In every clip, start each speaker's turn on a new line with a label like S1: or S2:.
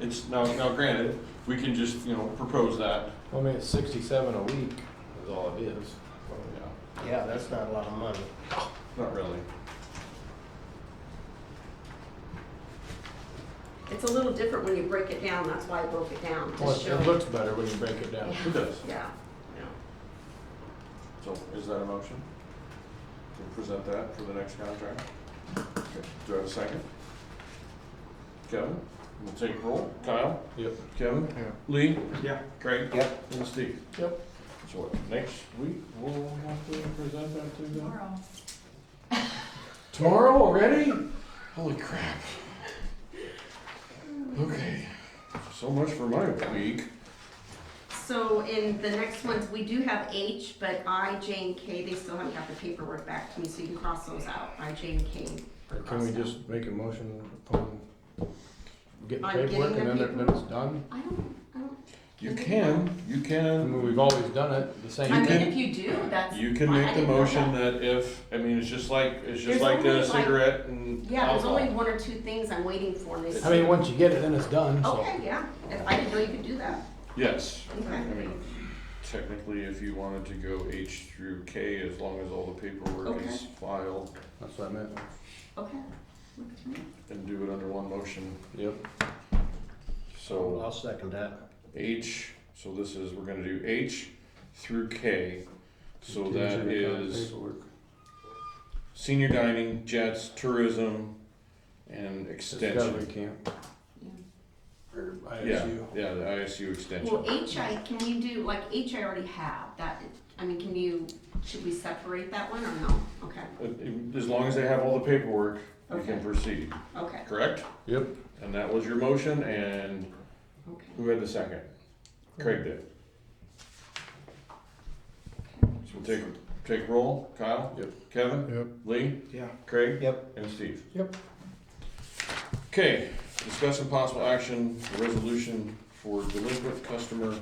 S1: It's, now, now granted, we can just, you know, propose that,
S2: I mean, it's sixty-seven a week is all it is.
S1: yeah,
S3: Yeah, that's not a lot of money.
S1: not really.
S4: It's a little different when you break it down, that's why I broke it down,
S2: Well,
S4: to
S2: Oh, it- it
S4: show.
S2: looks better when you break it down.
S1: It does.
S4: Yeah, yeah.
S1: So is that a motion? To present that for the next contract? Okay. Do I have a second? Kevin, we'll take roll. Kyle?
S2: Yep.
S1: Kevin?
S3: Yeah.
S1: Lee?
S3: Yeah.
S1: Craig?
S3: Yep.
S1: And Steve?
S2: Yep.
S1: So what, next week, we'll have to present that to them?
S5: Tomorrow.
S2: Tomorrow already?
S1: Holy crap. Okay, so much for my week.
S4: So in the next ones, we do have H, but I, J, and K, they still haven't got the paperwork back to me, so you can cross those out, I, J, and K. are
S2: Can we
S4: crossed out.
S2: just make a motion upon getting
S4: On getting
S2: paperwork and
S4: the
S2: then it- then it's done?
S4: I don't, I don't,
S1: You can, you
S2: I
S1: can.
S2: mean, we've always done it the
S5: I
S2: same.
S1: You
S5: mean,
S1: can-
S5: if you do, that's.
S1: You can
S5: fine. I
S1: make the
S5: didn't know
S1: motion
S5: that.
S1: that if, I mean, it's just like, it's just
S4: There's
S1: like
S4: only
S1: a
S4: like-
S1: cigarette and
S4: yeah, there's only
S1: alcohol.
S4: one or two things I'm waiting for, and they
S2: I
S4: said-
S2: mean, once you get it, then it's done, so.
S4: Okay, yeah, If- I didn't know you could do that,
S1: Yes, I
S4: okay.
S1: mean, technically, if you wanted to go H through K, as long as all the paperwork
S4: Okay.
S1: is filed
S2: That's what I meant.
S4: Okay. Look at me.
S1: and do it under one motion,
S2: Yep.
S1: so.
S3: I'll second that.
S1: H, so this is, we're gonna do H through K. So
S2: Contingent
S1: that
S2: upon
S1: is
S2: paperwork.
S1: senior dining, jets, tourism, and
S2: Discovery
S1: extension.
S2: camp
S4: Yeah.
S2: or
S1: Yeah,
S2: ISU.
S1: yeah, the ISU extension.
S4: Well, HI, can you do, like, H I already have, that, I mean, can you, should we separate that one or no? Okay,
S1: Uh, uh, As long as they have all the paperwork, we can
S4: Okay.
S1: proceed,
S4: okay,
S1: correct?
S2: Yep.
S1: And that was your motion, and
S4: okay.
S1: who had the second? Craig did. So we'll take, take roll, Kyle?
S2: Yep.
S1: Kevin?
S2: Yep.
S1: Lee?
S3: Yeah.
S1: Craig?
S3: Yep.
S1: And Steve?
S2: Yep.
S1: Okay, discuss and possible action, for resolution for delinquent customer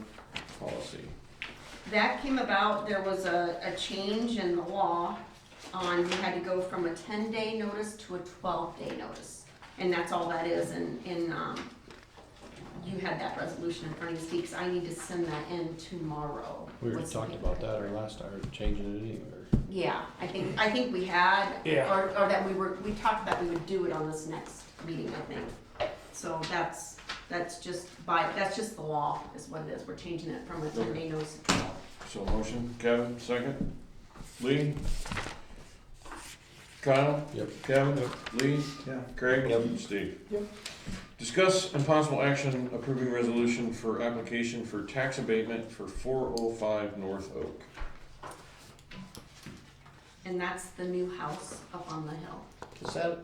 S1: policy.
S4: That came about, there was a, a change in the law on, we had to go from a ten-day notice to a twelve-day notice. And that's all that is, and, and, um, you had that resolution in front of you, Steve, 'cause I need to send that in tomorrow.
S2: We already
S4: with some
S2: talked about
S4: paperwork.
S2: that or last, or changing it anyway.
S4: Yeah, I think, I think we had,
S2: Yeah.
S4: or, or that we were, we talked that we would do it on this next meeting, I think. So that's, that's just by, that's just the law is what it is, we're changing it from a ten-day notice to twelve.
S1: So motion, Kevin, second. Lee? Kyle?
S2: Yep.
S1: Kevin? Lee?
S3: Yeah.
S1: Craig?
S3: Yep.
S1: Steve?
S2: Yep.
S1: Discuss and possible action approving resolution for application for tax abatement for four oh five North Oak.
S4: And that's the new house up on the hill.
S3: Is that,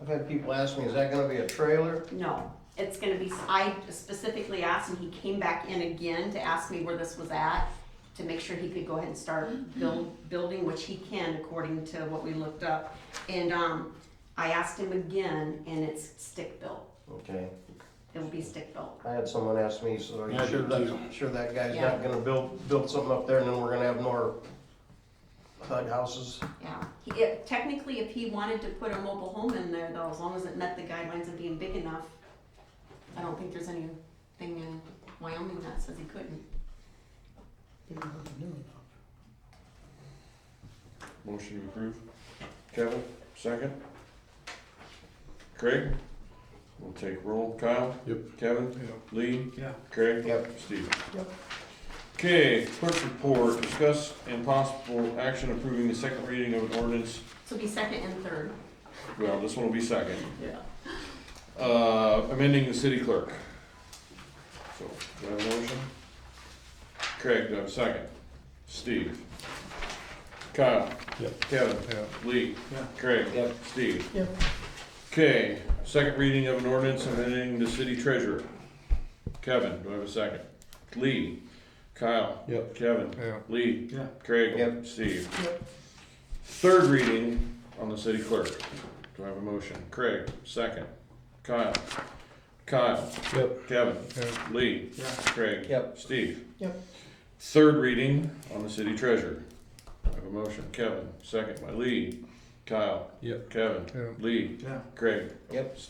S3: I've had people ask me, is that gonna be a trailer?
S4: No, it's gonna be, I specifically asked and he came back in again to ask me where this was at, to make sure he could go ahead and start build, building, which he can according to what we looked up. And, um, I asked him again and it's stick-built.
S3: Okay.
S4: It'll be stick-built.
S3: I had someone ask me, so are
S2: Yeah,
S3: you
S2: I
S3: sure
S2: did
S3: that, sure that guy's
S4: Yeah.
S3: not gonna build, build something up there and then we're gonna have more HUD houses?
S4: Yeah, he, it, technically, if he wanted to put a mobile home in there though, as long as it met the guidelines of being big enough, I don't think there's anything in Wyoming that says he couldn't.
S1: Motion to approve. Kevin, second. Craig? We'll take roll. Kyle?
S2: Yep.
S1: Kevin? Lee?
S3: Yeah.
S1: Craig?
S3: Yep.
S1: Steve?
S3: Yep.
S1: Okay, clerk report, discuss and possible action approving the second reading of an ordinance.
S4: So be second and third.
S1: Well, this one will be second.
S4: Yeah.
S1: Uh, amending the city clerk. So, do I have a motion? Craig, do I have a second? Steve? Kyle?
S2: Yep.
S1: Kevin? Lee?
S3: Yeah.
S1: Craig?
S3: Yep.
S1: Steve?
S3: Yep.
S1: Okay, second reading of an ordinance amending the city treasurer. Kevin, do I have a second? Lee? Kyle?
S2: Yep.
S1: Kevin?
S2: Yeah.
S1: Lee?
S3: Yeah.
S1: Craig?
S3: Yep.
S1: Steve?
S3: Yep.
S1: Third reading on the city clerk. Do I have a motion? Craig, second. Kyle? Kyle?
S2: Yep.
S1: Kevin?
S2: Yeah.
S1: Lee?
S3: Yeah.
S1: Craig?
S3: Yep.
S1: Steve?
S3: Yep.
S1: Third reading on the city treasurer. I have a motion, Kevin, second by Lee, Kyle,
S2: Yep.
S1: Kevin, Lee,
S3: Yeah.
S1: Craig.
S3: Yep.
S1: Steve.